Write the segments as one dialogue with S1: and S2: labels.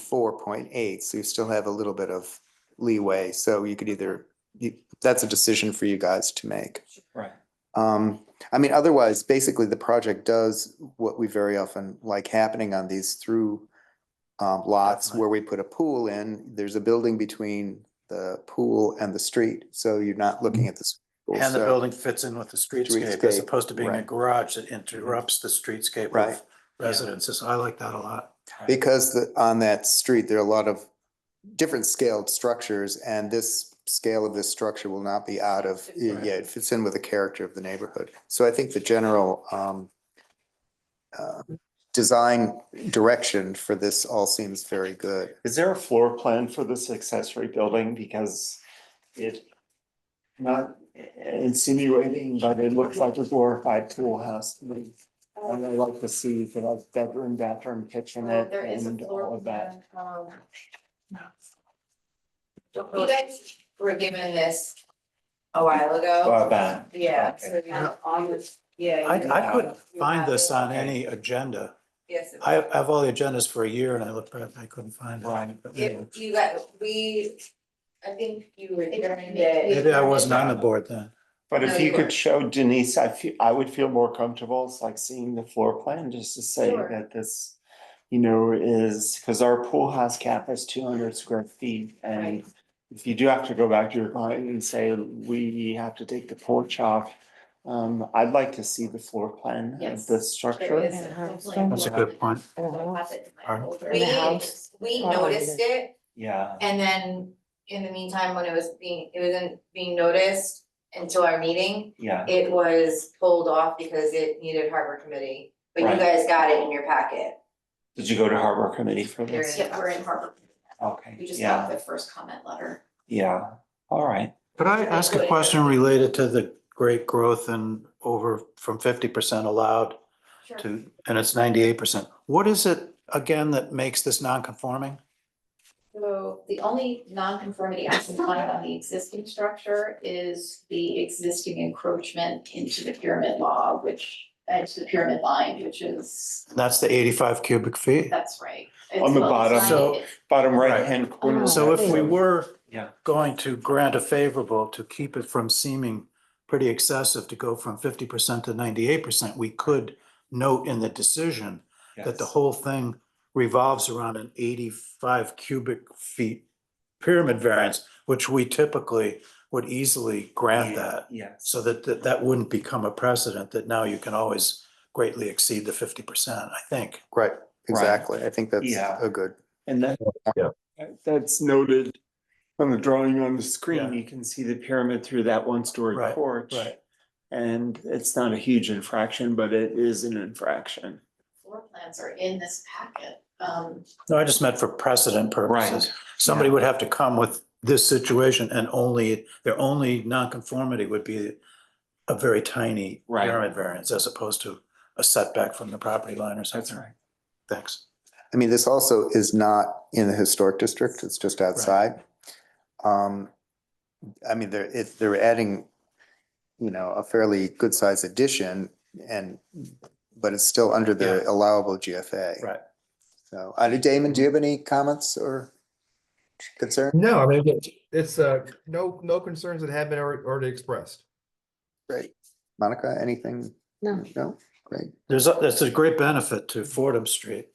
S1: four point eight, so you still have a little bit of leeway. So you could either, you- that's a decision for you guys to make.
S2: Right.
S1: Um, I mean, otherwise, basically, the project does what we very often like happening on these through um, lots
S2: Definitely.
S1: where we put a pool in, there's a building between the pool and the street, so you're not looking at this.
S2: Mm-hmm. And the building fits in with the streetscape as
S1: Streetscape,
S2: opposed to being a
S1: right.
S2: garage that interrupts the streetscape
S1: Right.
S2: of residences. I like that a lot.
S1: Because the, on that street, there are a lot of different scaled structures and this scale of this structure will not be out of, yeah,
S2: Right.
S1: it fits in with the character of the neighborhood. So I think the general, um, uh, design direction for this all seems very good.
S3: Is there a floor plan for this accessory building? Because it not insinuating, but it looks like a glorified pool house. to me.
S4: Um,
S3: And I like to see the like bedroom, bathroom,
S4: Well,
S3: kitchenette
S4: um, There is a
S3: and all
S4: floor
S3: of that.
S4: plan. um, You guys were given this a while ago.
S3: Well, that.
S4: Yeah, so you have on this, yeah.
S2: I,
S4: you-
S2: I couldn't
S4: You
S2: find
S4: have
S2: this
S4: it.
S2: on any agenda.
S4: Yes. it-
S2: I have, I have all the agendas for a year and I looked, at it and I couldn't find it.
S3: Right.
S2: But anyway.
S4: If you got, we, I think you were during
S2: Maybe
S4: it.
S2: I wasn't on the board then.
S3: But
S4: No,
S3: if
S4: you
S3: you
S4: are.
S3: could show Denise, I feel, I would feel more comfortable, it's like seeing the floor plan, just to say
S4: Sure.
S3: that this. You know, is, cause our pool house cap is two hundred square feet and
S4: Right.
S3: if you do have to go back to your client and say, we have to take the porch off. Um, I'd like to see the floor plan of
S4: Yes.
S3: the
S4: There is
S3: structure.
S4: a floor plan.
S2: That's a good point.
S4: I'll pass it to my
S2: Pardon?
S4: folder.
S5: In the house.
S4: We, we
S5: Oh,
S4: noticed it
S3: Yeah,
S4: And then in the meantime, when it was being, it wasn't being noticed until our meeting,
S3: yeah,
S4: it was pulled off because it needed harbor committee. But you
S3: Right.
S4: guys got it in your packet.
S3: did you go to harbor committee for
S4: There
S3: this?
S4: it is.
S5: Yeah, we're in harbor.
S3: Okay,
S5: We just got
S3: yeah,
S5: the first comment letter.
S3: yeah, all right,
S2: Could I ask a question related to the great growth and over from fifty percent allowed
S4: Sure.
S2: to, and it's ninety-eight percent? What is it again that makes this non-conforming?
S5: So the only non-conformity I can find on the existing structure is the existing encroachment into the pyramid law, which, uh, into the pyramid line, which is,
S2: That's the eighty-five cubic feet?
S5: that's right. It's
S3: On the
S5: well
S3: bottom.
S5: designed.
S2: So-
S5: It's-
S3: bottom
S2: Right.
S3: right hand
S4: Oh,
S3: corner.
S2: So if we were
S3: Oh, Yeah.
S2: going to grant a favorable to keep it from seeming pretty excessive to go from fifty percent to ninety-eight percent, we could note in the decision that the
S3: Yes.
S2: whole thing revolves around an eighty-five cubic feet pyramid variance, which we typically would easily grant
S3: Yeah,
S2: that.
S3: Yes.
S2: So that, that, that wouldn't become a precedent that now you can always greatly exceed the fifty percent, I think.
S1: Right, exactly. I think that's
S3: Yeah.
S1: a good.
S3: And that.
S2: Yeah.
S3: That's noted on the drawing on the
S2: Yeah.
S3: screen, you can see the pyramid through that one story
S2: Right,
S3: porch.
S2: right.
S3: And it's not a huge infraction, but it is an infraction.
S5: Floor plans are in this packet. Um,
S2: No, I just meant for precedent purposes. Somebody
S3: yeah.
S2: would have to come with this situation and only, their only nonconformity would be a very tiny
S3: Right.
S2: pyramid variance as opposed to a setback from the property line or something. Thanks.
S1: I mean, this also is not in the historic district, it's just outside. Um, I mean, they're, if they're adding, you know, a fairly good size addition and, but it's still under the allowable GFA.
S2: Right.
S1: So, uh, Damon, do you have any comments or concern?
S6: No, I mean, it's- it's, uh, no, no concerns that have been alre- already expressed.
S1: Great. Monica, anything?
S7: No.
S1: No? Great.
S2: There's, a- there's a great benefit to Fordham Street.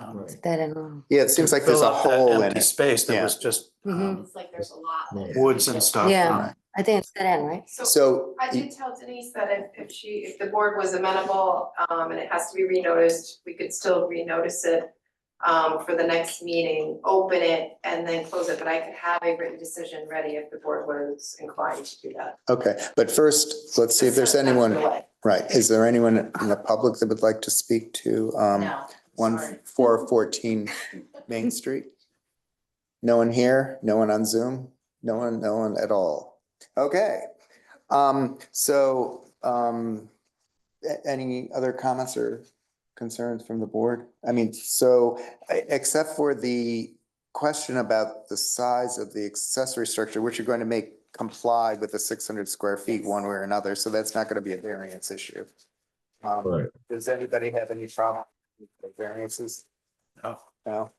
S2: um,
S6: Right.
S7: That and all.
S1: Yeah, it seems
S2: to
S1: like there's
S2: fill
S1: a
S2: up that
S1: hole in
S2: empty
S1: it.
S2: Space that
S1: Yeah.
S2: was just um,
S5: it's like there's a lot. that-
S2: woods and stuff.
S7: Yeah. I think it's that end, right?
S1: So.
S8: I did tell Denise that if, if she, if the board was amenable, um, and it has to be renoticed, we could still renotice it um, for the next meeting, open it and then close it, but I could have a written decision ready if the board was inclined to do that.
S1: Okay, but first, let's see if there's anyone. Right, is there anyone in the public that would like to speak to um
S5: No,
S1: one
S5: sorry.
S1: four fourteen Main Street? No one here, no one on Zoom, no one, no one at all. Okay, um, so um, a- any other comments or concerns from the board? I mean, so e- except for the question about the size of the accessory structure, which you're going to make comply with the six hundred square feet one way or another, so that's not gonna be a variance issue. Um,
S6: Right.
S1: Does anybody have any problem with the variances?
S2: No.
S1: No,